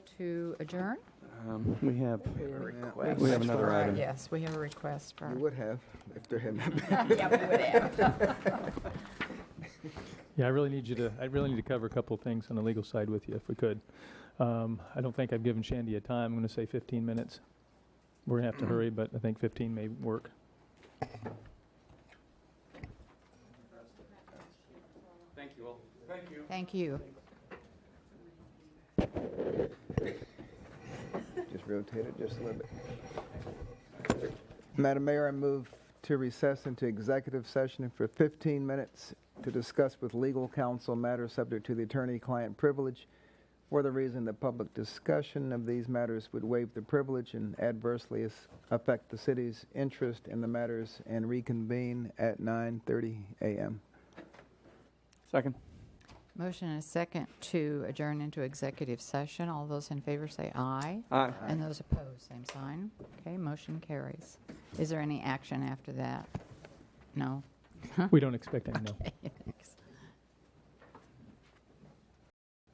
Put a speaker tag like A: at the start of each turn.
A: to adjourn?
B: Um, We have,
C: request.
B: we have another item.
C: Yes, we have a request for.
D: You would have, if there had not been.
E: Yeah, I really need you to, I really need to cover a couple of things on the legal side with you, if we could. Um, I don't think I've given Shandy a time. I'm going to say 15 minutes. We're going to have to hurry, but I think 15 may work.
A: Thank you.
D: Just rotate it just a little bit. Madam Mayor, I move to recess into executive session for 15 minutes to discuss with legal counsel matters subject to the attorney-client privilege for the reason that public discussion of these matters would waive the privilege and adversely as- affect the city's interest in the matters and reconvene at 9:30 a.m.
B: Second.
A: Motion and a second to adjourn into executive session. All those in favor say aye.
B: Aye.
A: And those opposed, same sign. Okay, motion carries. Is there any action after that? No?
E: We don't expect any, no.